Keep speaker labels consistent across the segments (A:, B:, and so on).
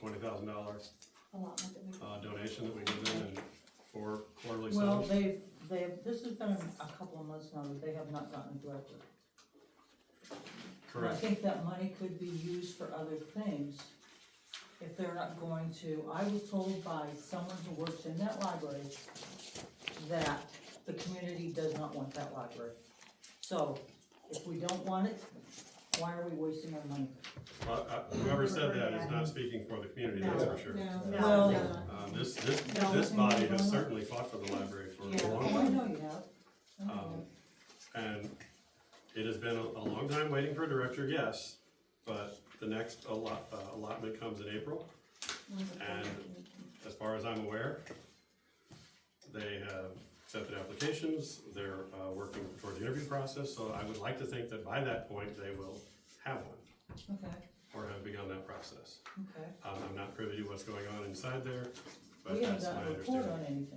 A: twenty thousand dollar
B: allotment that we.
A: Uh, donation that we give them and for quarterly
C: Well,
A: subs.
C: they've, they've, this has been a couple of months now that they have not gotten a director. I
A: Correct,
C: think that money could be used for other things if they're not going to, I was told by someone who works in that library that the community does not want that library. So if we don't want it, why are we wasting our money?
A: Uh, uh, whoever said that is not speaking for the community, that's for sure.
B: No,
C: Well-
B: no.
A: Um, this, this,
C: No,
A: this
C: I
A: body
C: think
A: has
C: we're not.
A: certainly fought for the library for
B: Yeah.
A: a long
C: Oh, I
A: time.
C: know you have. I know you
A: Um, and it has been a, a long time waiting for a director, yes, but the next allot, uh, allotment comes in April. And as far as I'm aware, they have accepted applications, they're, uh, working toward the interview process, so I would like to think that by that point, they will have one,
C: have.
A: Um,
C: Okay,
A: or have begun that process.
C: okay.
A: Um, I'm not privy to what's going on inside there, but
C: We haven't
A: that's
C: got
A: my
C: a report on
A: understanding.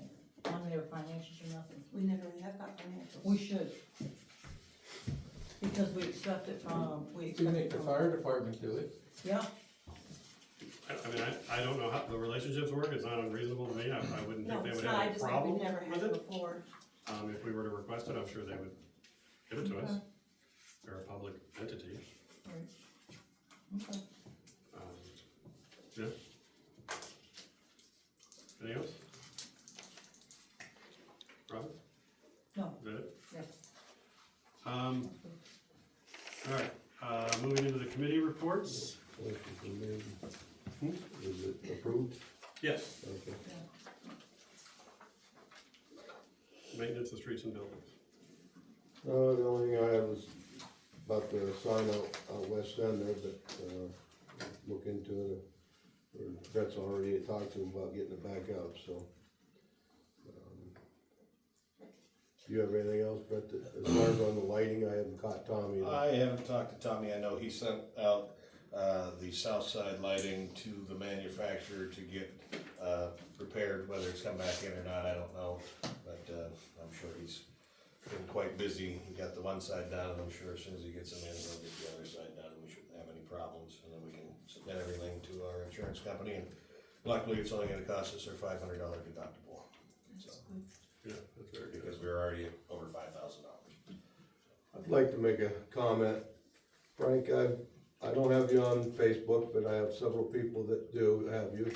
C: anything, on their financials or nothing.
B: We never really have got financials.
C: We should. Because we expect it from, we expect
D: Didn't
C: it
D: the
C: from-
D: fire department do it?
C: Yeah,
A: I, I mean, I, I don't know how the relationships work, it's not unreasonable to me, I, I wouldn't
B: No,
A: think they
B: it's
A: would
B: not, I
A: have a
B: just think
A: problem
B: we
A: with
B: never had it
A: it.
B: before.
A: Um, if we were to request it, I'm sure they would give it to us. They're a public entity,
C: okay.
A: um, yeah. Anything else? Robin,
C: No,
A: is that it?
C: yes.
A: Um, all right, uh, moving into the committee reports,
E: Is it approved?
A: yes,
E: Okay.
A: maintenance of streets and buildings.
E: Uh, the only thing I had was about the sign out, out west end there, but, uh, look into it. Or Brett's already talked to him about getting it back up, so. um, Do you have anything else, Brett, that- as far as on the lighting, I haven't caught Tommy.
F: I haven't talked to Tommy, I know he sent out, uh, the south side lighting to the manufacturer to get, uh, repaired, whether it's come back in or not, I don't know. But, uh, I'm sure he's been quite busy, he got the one side down, and I'm sure as soon as he gets them in, he'll get the other side down, and we shouldn't have any problems. And then we can submit everything to our insurance company, and luckily, it's only gonna cost us our five hundred dollar deductible. So,
A: Yeah, that's very good.
F: because we're already over five thousand dollars.
E: I'd like to make a comment. Frank, I, I don't have you on Facebook, but I have several people that do have you.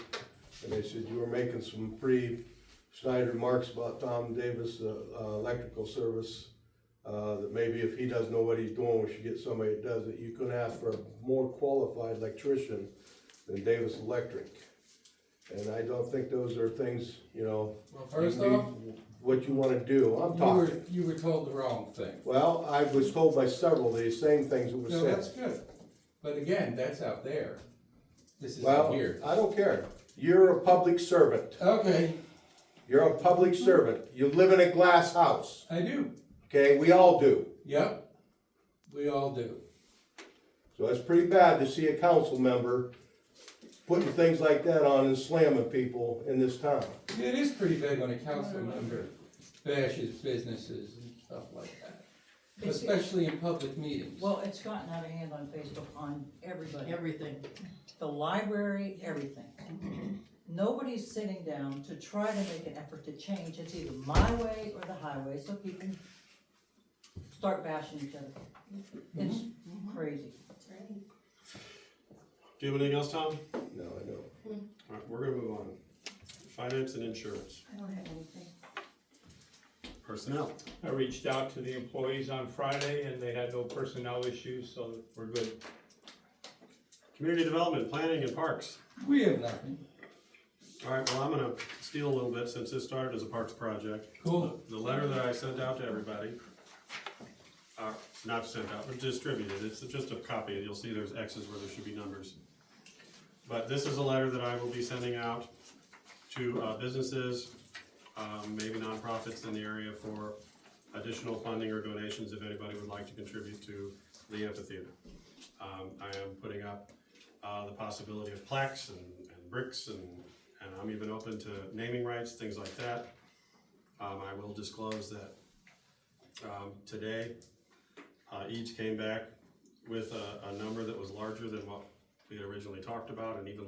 E: And they said you were making some pretty snide remarks about Tom Davis, the uh, electrical service. Uh, that maybe if he doesn't know what he's doing, we should get somebody that does it. You couldn't ask for a more qualified electrician than Davis Electric. And I don't think those are things, you know.
D: Well, first
E: you need-
D: off,
E: What you wanna do, I'm
D: you were,
E: talking.
D: you were told the wrong thing.
E: Well, I was told by several of these same things that were
D: No, that's
E: said.
D: good. But again, that's out there. This is
E: Well,
D: here.
E: I don't care. You're a public servant.
D: Okay,
E: You're a public servant. You live in a glass house,
D: I do.
E: okay? We all do.
D: Yep. We all do.
E: So it's pretty bad to see a council member putting things like that on and slamming people in this town.
D: It is pretty big when a council
C: Mm-hmm.
D: member bashes businesses and stuff like that. Especially in public meetings.
C: Well, it's gotten out of hand on Facebook on everybody,
G: Everything.
C: the library, everything. Nobody's sitting down to try to make an effort to change. It's either my way or the highway, so people start bashing each other. It's
D: Mm-hmm.
C: crazy.
A: Do you have anything else, Tom?
E: No, I know.
A: All right, we're gonna move on. Finance and insurance,
B: I don't have anything.
A: personnel.
H: I reached out to the employees on Friday and they had no personnel issues, so we're good.
A: Community development, planning and parks.
D: We have nothing.
A: All right, well, I'm gonna steal a little bit since this started as a parks project.
D: Cool.
A: The the letter that I sent out to everybody, uh, not sent out, but distributed, it's just a copy, you'll see there's X's where there should be numbers. But this is a letter that I will be sending out to, uh, businesses, um, maybe nonprofits in the area for additional funding or donations if anybody would like to contribute to the amphitheater. Um, I am putting up, uh, the possibility of plaques and, and bricks and, and I'm even open to naming rights, things like that. Um, I will disclose that, um, today, uh, each came back with a, a number that was larger than what we had originally talked about and even